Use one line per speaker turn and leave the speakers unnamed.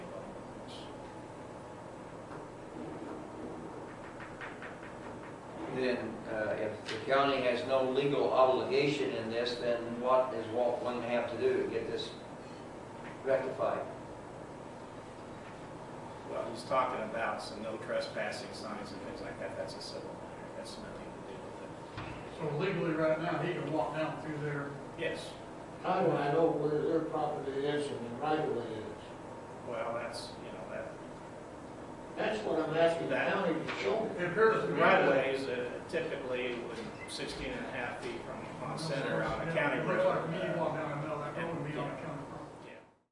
then uh, if the county has no legal obligation in this, then what is Walt going to have to do to get this rectified?
Well, he's talking about some no trespassing signs and things like that, that's a civil matter, that's nothing to do with
So legally, right now, he can walk down through there.
it. Yes,
How do I know where their property is and the right of way is?
well, that's, you know, that,
That's what I'm asking the county to show me.
It appears to
the
me.
right of ways uh, typically would 16 and a half feet from the
I'm
pond
sorry,
center on a
yeah,
county
it
road.
Looks like me walking down the middle of that road and be on a